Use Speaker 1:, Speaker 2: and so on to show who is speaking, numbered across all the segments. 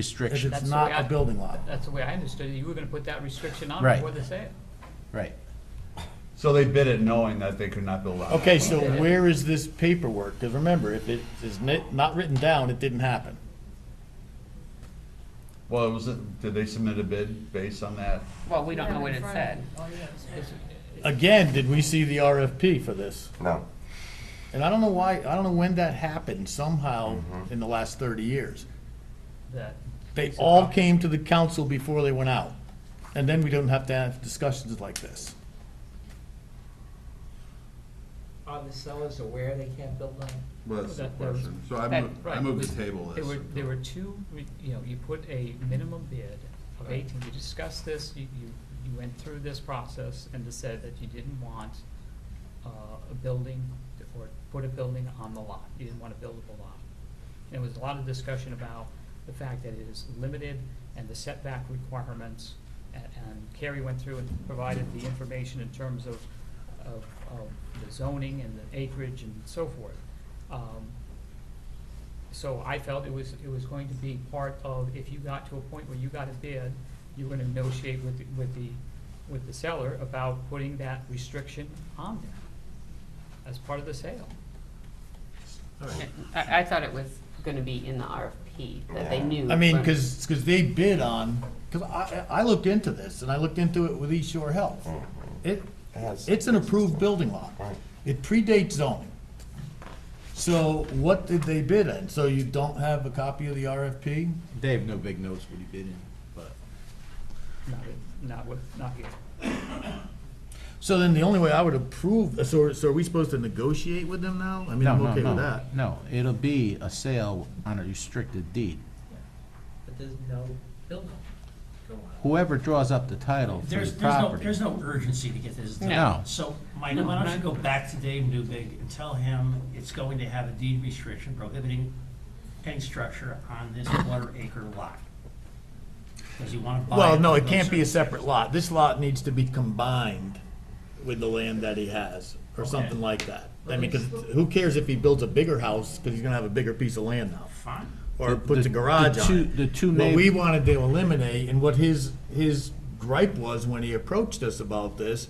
Speaker 1: If
Speaker 2: restriction,
Speaker 1: it's
Speaker 3: That's
Speaker 1: not
Speaker 3: the way
Speaker 1: a
Speaker 3: I-
Speaker 1: building lot,
Speaker 3: That's the way I understood it. You were gonna put that restriction on
Speaker 2: Right.
Speaker 3: before the sale.
Speaker 2: right.
Speaker 4: So they bid it knowing that they could not build on.
Speaker 2: Okay, so where is this paperwork? Because remember, if it is ni- not written down, it didn't happen.
Speaker 4: Well, was it, did they submit a bid based on that?
Speaker 5: Well, we don't know what it said.
Speaker 2: Again, did we see the RFP for this?
Speaker 6: No.
Speaker 2: And I don't know why, I don't know when that happened somehow in the last thirty years.
Speaker 3: That,
Speaker 2: They all came to the council before they went out. And then we don't have to have discussions like this.
Speaker 7: Are the sellers aware they can't build on?
Speaker 8: Well, that's the
Speaker 3: That- that was-
Speaker 8: question. So I
Speaker 5: that-
Speaker 8: move, I
Speaker 3: right,
Speaker 8: move
Speaker 3: was-
Speaker 8: to table
Speaker 3: there
Speaker 8: this.
Speaker 3: were, there were two, re- you know, you put a minimum bid of eighteen. You discussed this, you, you, you went through this process and just said that you didn't want, uh, a building or put a building on the lot. You didn't want a buildable lot. There was a lot of discussion about the fact that it is limited and the setback requirements. a- And Carrie went through and provided the information in terms of, of, of the zoning and the acreage and so forth. Um, So I felt it was, it was going to be part of, if you got to a point where you got a bid, you were gonna negotiate with, the- with the, with the seller about putting that restriction on there as part of the sale.
Speaker 5: I, I thought it was gonna be in the RFP, that they
Speaker 6: Yeah.
Speaker 5: knew.
Speaker 2: I mean,
Speaker 5: when-
Speaker 2: because, they bid on, because I, I looked into this, and I looked into it with East Shore Health. It,
Speaker 6: has-
Speaker 2: it's an approved building lot.
Speaker 6: Right.
Speaker 2: It predates zoning. So what did they bid on? So you don't have a copy of the RFP?
Speaker 9: They have no big notes what he bid in, but
Speaker 3: Not, not with, not here.
Speaker 2: So then the only way I would approve, so, so are we supposed to negotiate with them now? I mean,
Speaker 9: no,
Speaker 2: I'm
Speaker 9: no,
Speaker 2: okay with
Speaker 9: no,
Speaker 2: that.
Speaker 9: no. It'll be a sale on a restricted deed.
Speaker 7: But there's no building going on.
Speaker 9: Whoever draws up the title for
Speaker 10: There's,
Speaker 9: the
Speaker 10: there's no,
Speaker 9: property.
Speaker 10: there's no urgency to get this done.
Speaker 9: No.
Speaker 10: So, Mike, why don't you go back to Dave Newbig and tell him it's going to have a deed restriction prohibiting any structure on this quarter acre lot? Because you want to buy.
Speaker 2: Well, no,
Speaker 10: for
Speaker 2: it can't
Speaker 10: those
Speaker 2: be a
Speaker 10: circumstances.
Speaker 2: separate lot. This lot needs to be combined with the land that he has, or something
Speaker 10: Okay.
Speaker 2: like that. I mean, because who cares if he builds a bigger house, because he's gonna have a bigger piece of land now,
Speaker 10: Fine.
Speaker 2: or
Speaker 9: The-
Speaker 2: puts a
Speaker 9: the-
Speaker 2: garage
Speaker 9: the
Speaker 2: on
Speaker 9: two-
Speaker 2: it.
Speaker 9: the two
Speaker 2: What we
Speaker 9: neighb-
Speaker 2: wanted to eliminate, and what his, his gripe was when he approached us about this,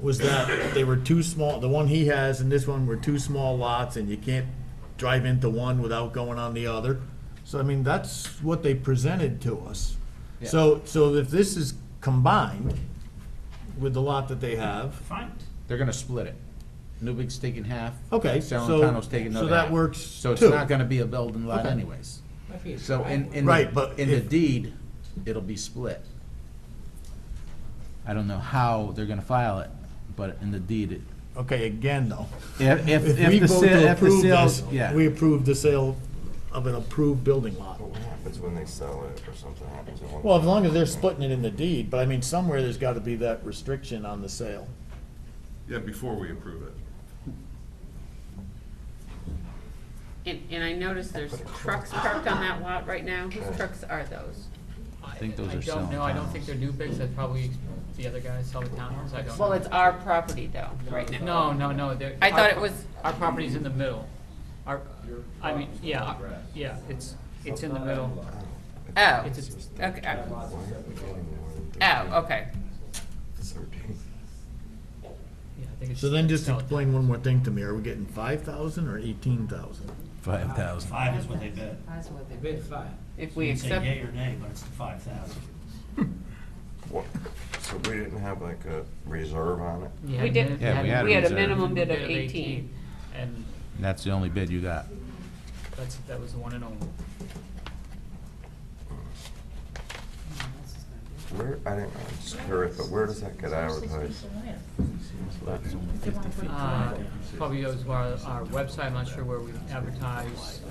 Speaker 2: was that they were too small, the one he has and this one were two small lots, and you can't drive into one without going on the other. So, I mean, that's what they presented to us. So, so if this is combined with the lot that they have,
Speaker 10: Fine.
Speaker 9: They're gonna split it. Newbig's taking half.
Speaker 2: Okay, so-
Speaker 9: Salentino's taking
Speaker 2: so
Speaker 9: another
Speaker 2: that
Speaker 9: half.
Speaker 2: works
Speaker 9: So it's
Speaker 2: too.
Speaker 9: not gonna be a building lot
Speaker 2: Okay.
Speaker 9: anyways.
Speaker 7: Might be a
Speaker 9: So in, in,
Speaker 2: Right, but
Speaker 9: the- in the
Speaker 2: if-
Speaker 9: deed, it'll be split. I don't know how they're gonna file it, but in the deed, it-
Speaker 2: okay, again, though.
Speaker 9: if, if,
Speaker 2: If we
Speaker 9: if the
Speaker 2: vote
Speaker 9: sale,
Speaker 2: to
Speaker 9: if the
Speaker 2: approve
Speaker 9: sales,
Speaker 2: this,
Speaker 9: yeah.
Speaker 2: we approve the sale of an approved building lot.
Speaker 6: What happens when they sell it or something happens? It won't-
Speaker 2: Well, as long as they're splitting it in the deed, but I mean, somewhere there's gotta be that restriction on the sale.
Speaker 8: Yeah, before we approve it.
Speaker 5: And, and I noticed there's trucks parked on that lot right now. Whose trucks are those?
Speaker 3: I
Speaker 9: think those are
Speaker 3: I don't know, I don't think
Speaker 9: Celentanos.
Speaker 3: they're new bigs, that's probably the other guys sell the townhomes, I don't know.
Speaker 5: Well, it's our property though, right
Speaker 3: No,
Speaker 5: now.
Speaker 3: no, no, they're.
Speaker 5: I thought
Speaker 3: our-
Speaker 5: it was- oh,
Speaker 3: Our property's in the middle. Our, I mean, yeah, our- yeah, it's, it's in the middle.
Speaker 5: Oh,
Speaker 3: It's a-
Speaker 5: okay.
Speaker 6: Why
Speaker 5: Oh,
Speaker 6: are we getting more than
Speaker 5: Oh, okay.
Speaker 6: 13?
Speaker 3: Yeah, I think it's.
Speaker 2: So then just
Speaker 3: Celentano.
Speaker 2: explain one more thing to me. Are we getting five thousand or eighteen thousand?
Speaker 9: Five thousand.
Speaker 10: Five is what they bid.
Speaker 7: That's what they bid five.
Speaker 5: If
Speaker 10: You
Speaker 5: we
Speaker 10: can say
Speaker 5: accept,
Speaker 10: yea or nay, but it's the five thousand.
Speaker 6: What- So we didn't have like a reserve on it?
Speaker 3: You had
Speaker 5: we
Speaker 3: a
Speaker 5: did,
Speaker 3: minute-
Speaker 9: Yeah, we had a
Speaker 5: we had a
Speaker 9: reserve.
Speaker 5: minimum bid of eighteen.
Speaker 3: And
Speaker 9: And that's the only bid you got.
Speaker 3: that's, that was the one and only.
Speaker 6: Where, I didn't, I'm just curious, but where does that get advertised?
Speaker 3: Uh, Probably goes to our, our website, I'm not sure where we advertise,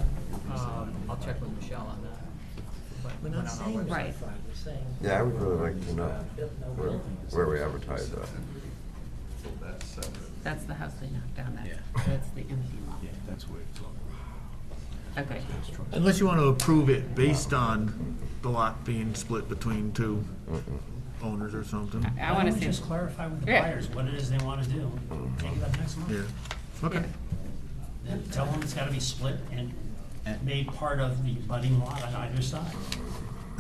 Speaker 3: um, I'll check with Michelle on that. But
Speaker 7: We're
Speaker 3: went on
Speaker 7: not
Speaker 3: our
Speaker 7: saying
Speaker 3: website.
Speaker 5: Right.
Speaker 7: five, we're saying.
Speaker 6: Yeah, I would really like to know
Speaker 7: Built no
Speaker 6: where,
Speaker 7: building.
Speaker 6: where we advertise that.
Speaker 8: So that's separate.
Speaker 5: That's the house they knocked down,
Speaker 9: Yeah.
Speaker 5: that's, that's the empty lot.
Speaker 9: That's where it's
Speaker 5: Okay.
Speaker 2: Unless you wanna approve it based on the lot being split between two owners or something.
Speaker 5: I
Speaker 10: Why
Speaker 5: wanna
Speaker 10: don't we
Speaker 5: see.
Speaker 10: just clarify with the
Speaker 5: Yeah.
Speaker 10: buyers what it is they want to do? Take it up next month.
Speaker 2: Yeah, okay.
Speaker 10: Then tell them it's gotta be split and made part of the budding lot on either side.